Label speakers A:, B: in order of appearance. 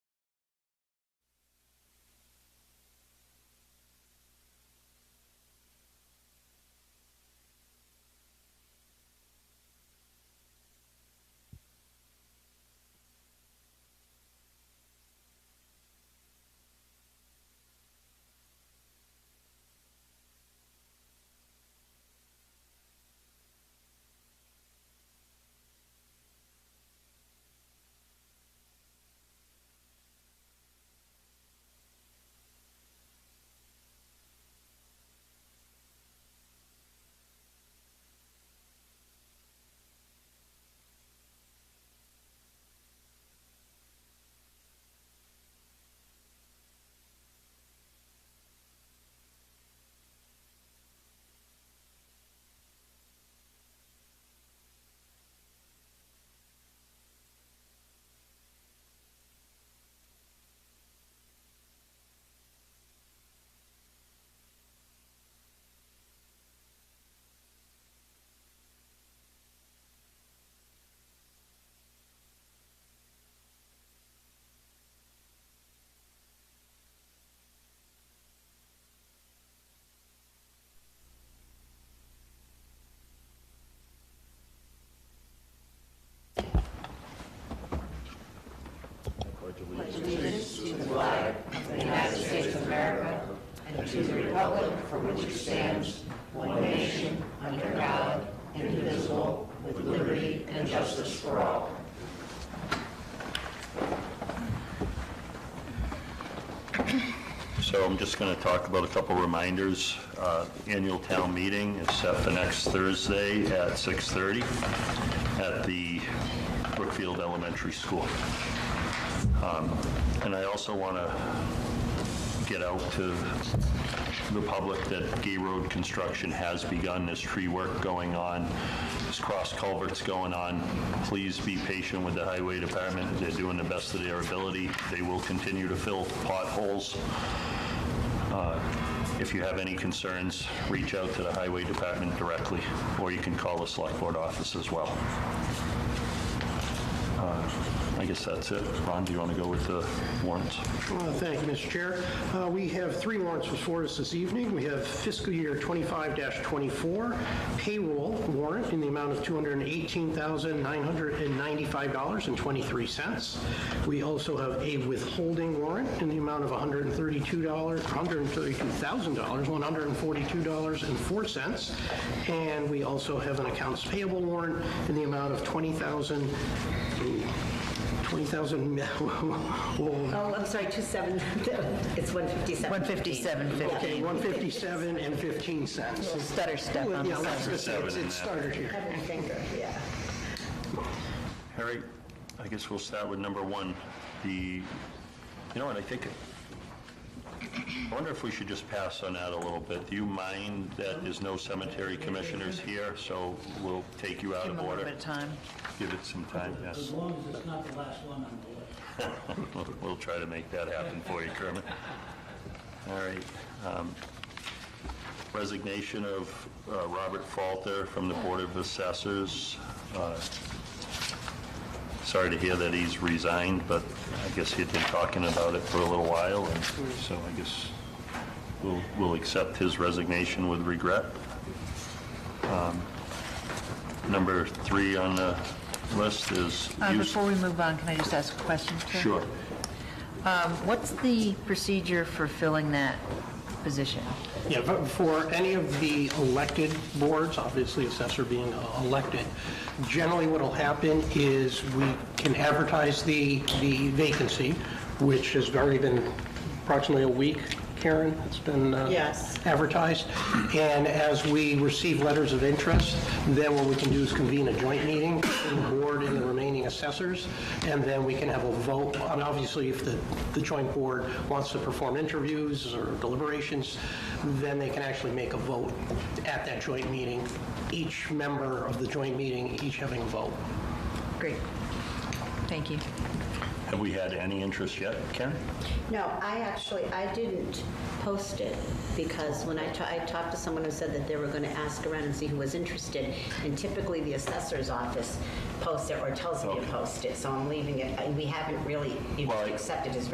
A: So I'm just going to talk about a couple reminders. Uh, Annual town meeting is set for next Thursday at 6:30 at the Brookfield Elementary School. Um, And I also want to get out to the public that Gay Road construction has begun, there's tree work going on, there's cross culverts going on. Please be patient with the highway department, they're doing the best of their ability. They will continue to fill potholes. Uh, If you have any concerns, reach out to the highway department directly, or you can call the select board office as well. Uh, I guess that's it. Ron, do you want to go with the warrants?
B: Uh, Thank you, Mr. Chair. Uh, We have three warrants before us this evening. We have fiscal year 25-24 payroll warrant in the amount of $218,995.23. We also have a withholding warrant in the amount of $132, $132,000, $142.04. And we also have an accounts payable warrant in the amount of 20000 20000 whoa,
C: Oh, I'm sorry, 27, it's 157.
D: 157.50.
B: Okay, 157 and 15 cents.
D: Stutter step
B: Well,
D: on
B: yeah,
D: the
B: let's-
D: side.
B: let's- It's it's started here.
C: Yeah.
A: All right, I guess we'll start with number one. The, you know what, I think, I wonder if we should just pass on that a little bit. Do you mind that there's no cemetery commissioners here, so we'll take you out
D: Give
A: of
D: them a little bit
A: order?
D: of time.
A: Give it some time,
E: As
A: yes.
E: long as it's not the last one on the list.
A: We'll- We'll try to make that happen for you, Kermit. All right. um, Resignation of uh, Robert Falter from the Board of Assessors. Uh, Sorry to hear that he's resigned, but I guess he'd been talking about it for a little while, and so I guess we'll, we'll accept his resignation with regret. Um, Number three on the list is...
D: Uh,
A: use-
D: Before we move on, can I just ask a question? Chair?
A: Sure.
D: Um, What's the procedure for filling that position?
B: Yeah, but for any of the elected boards, obviously assessor being uh, elected, generally what'll happen is we can advertise the, the vacancy, which has already been approximately a week, Karen, it's been uh,
C: Yes.
B: advertised. And as we receive letters of interest, then what we can do is convene a joint meeting, between the board and the remaining assessors, and then we can have a vote. And obviously, if the, the joint board wants to perform interviews or deliberations, then they can actually make a vote at that joint meeting, each member of the joint meeting, each having a vote.
D: Great. Thank you.
A: Have we had any interest yet, Karen?
C: No, I actually, I didn't post it because when I, ta- I talked to someone who said that they were going to ask around and see who was interested, and typically the assessor's office posts it or tells me to post it, so I'm leaving it, I- we haven't really, you
A: Well, I-
C: accepted his